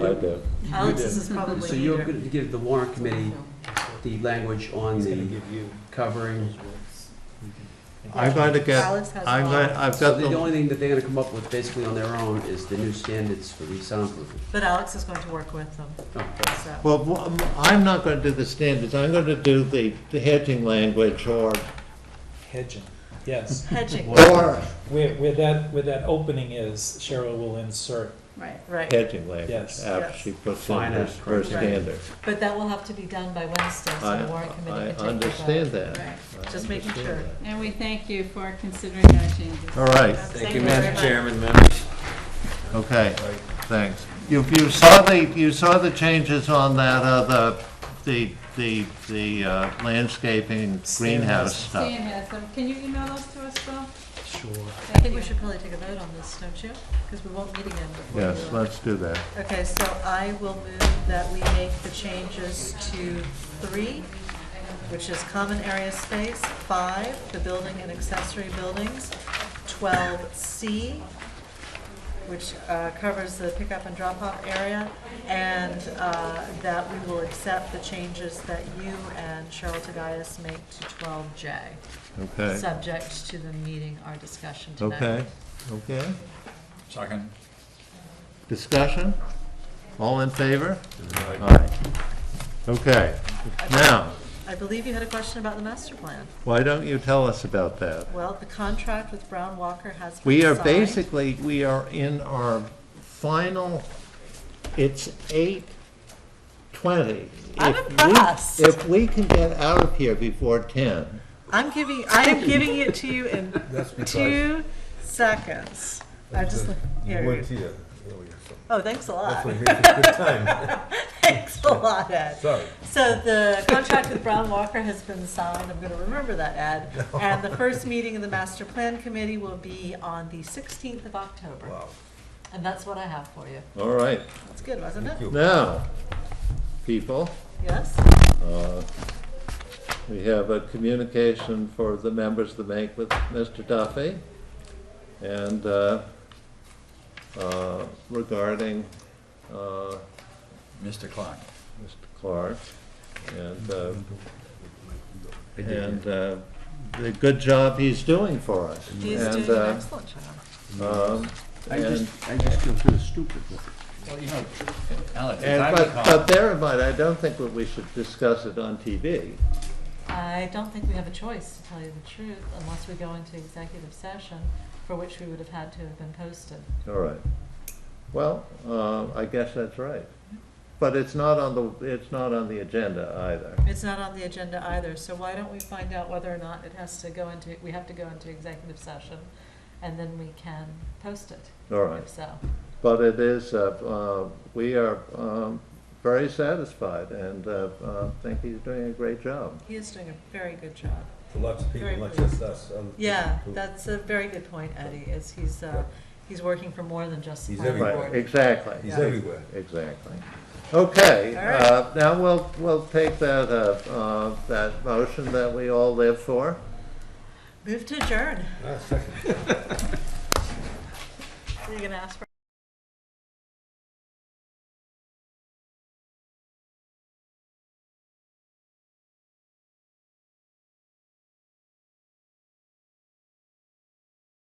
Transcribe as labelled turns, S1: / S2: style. S1: out there.
S2: Alex's is probably.
S3: So you're
S2: neater.
S3: going to give the warrant committee the language on
S4: He's gonna
S3: the
S4: give you
S3: covering.
S4: those words.
S5: I'm going to get,
S2: Alex has
S5: I'm
S2: all-
S5: going, I've
S3: So
S5: got
S3: the
S5: the,
S3: only thing that they're going to come up with basically on their own is the new standards for resoundproofing.
S2: But Alex is going to work with them,
S3: Okay.
S2: so.
S5: well, wh- I'm not going to do the standards, I'm going to do the the hedging language or,
S4: Hedging, yes.
S2: Hedging,
S5: or
S4: Where, where that, where that opening is, Cheryl will insert.
S2: right, right.
S5: hedging language
S4: Yes.
S5: after she puts in her
S3: Finance
S5: her
S3: criteria.
S5: standard.
S2: But that will have to be done by Wednesday, so
S5: I-
S2: the warrant committee
S5: I
S2: can take the vote.
S5: understand that.
S2: Right,
S5: I
S2: just making
S5: understand
S2: sure.
S5: that.
S6: And we thank you for considering our changes.
S5: All right,
S2: Thank you, Madam Chairman.
S5: okay, thanks. You, you saw the, you saw the changes on that, uh, the, the, the uh, landscaping greenhouse stuff.
S6: Stan has them. Can you email those to us, Bill?
S4: Sure.
S2: I
S6: Thank
S2: think we
S6: you.
S2: should probably take a vote on this, don't you? Because we won't meet again before.
S5: Yes,
S2: the-
S5: let's do that.
S2: Okay, so I will move that we make the changes to three, which is common area space, five, the building and accessory buildings, twelve C, which uh, covers the pickup and drop-off area, and uh, that we will accept the changes that you and Cheryl Tagayas make to twelve J,
S5: Okay,
S2: subject to the meeting, our discussion tonight.
S5: okay, okay.
S7: Second.
S5: Discussion? All in favor? Aye. Okay, now,
S2: I believe you had a question about the master plan.
S5: why don't you tell us about that?
S2: Well, the contract with Brown Walker has been
S5: We are
S2: signed.
S5: basically, we are in our final, it's eight twenty.
S2: I'm
S5: If we-
S2: impressed.
S5: If we can get out of here before ten,
S2: I'm giving, I am giving it to you in two seconds. I just, look- here.
S8: here earlier, so
S2: Oh, thanks a lot.
S8: we're here for a good time.
S2: Thanks a lot, Ed.
S8: Sorry.
S2: So the contract with Brown Walker has been signed, I'm gonna remember that, Ed. And the first meeting of the master plan committee will be on the sixteenth of October.
S8: Wow.
S2: And that's what I have for you.
S5: all right.
S2: That's good, wasn't it?
S8: you.
S5: Now, people,
S2: Yes?
S5: we have a communication for the members to make with Mr. Duffy and uh, uh, regarding uh,
S7: Mr. Clark.
S5: Mr. Clark. And, uh, and uh, the good job he's doing for us.
S2: He's
S5: And,
S2: doing an excellent job.
S5: uh, um,
S3: I
S5: And-
S3: just, I just feel kind of stupid with it.
S7: Well, you know, Alex, as
S5: And,
S7: I
S5: but, but
S7: recall,
S5: bear in mind, I don't think that we should discuss it on TV.
S2: I don't think we have a choice, to tell you the truth, unless we go into executive session, for which we would have had to have been posted.
S5: All right. Well, uh, I guess that's right. But it's not on the, it's not on the agenda either.
S2: It's not on the agenda either, so why don't we find out whether or not it has to go into, we have to go into executive session, and then we can post it,
S5: All right.
S2: if so.
S5: But it is, uh, uh, we are um, very satisfied and uh, uh, think he's doing a great job.
S2: He is doing a very good job.
S8: Lots of people,
S2: Very
S8: not
S2: pleased.
S8: just us. um,
S2: Yeah,
S8: who-
S2: that's a very good point, Eddie, is he's, uh, he's working for more than just the
S8: He's
S2: planning
S8: everywhere.
S5: Right,
S2: board.
S5: exactly.
S8: He's
S2: Yeah.
S8: everywhere.
S5: Exactly. Okay,
S2: All right.
S5: uh, now we'll, we'll take that, uh, uh, that motion that we all live for.
S2: Move to adjourn.
S8: Ah, second.
S2: Are you gonna ask for?